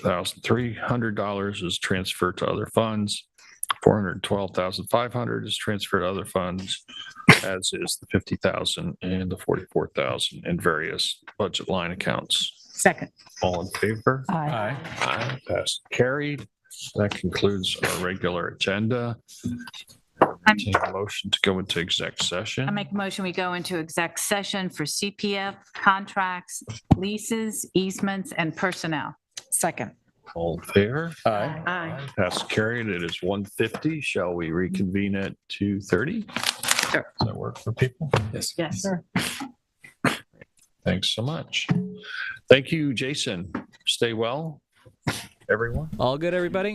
thousand three hundred dollars is transferred to other funds. Four hundred twelve thousand five hundred is transferred to other funds, as is the fifty thousand and the forty-four thousand in various budget line accounts. Second. All in favor? Aye. Aye. Passed, and carried. That concludes our regular agenda. I'm- Take a Motion to go into exec session. I make a motion, we go into exec session for CPF, contracts, leases, easements, and personnel. Second. All in favor? Aye. Aye. Passed, and carried. It is one fifty. Shall we reconvene at two thirty? Does that work for people? Yes. Yes. Thanks so much. Thank you, Jason. Stay well, everyone. All good, everybody?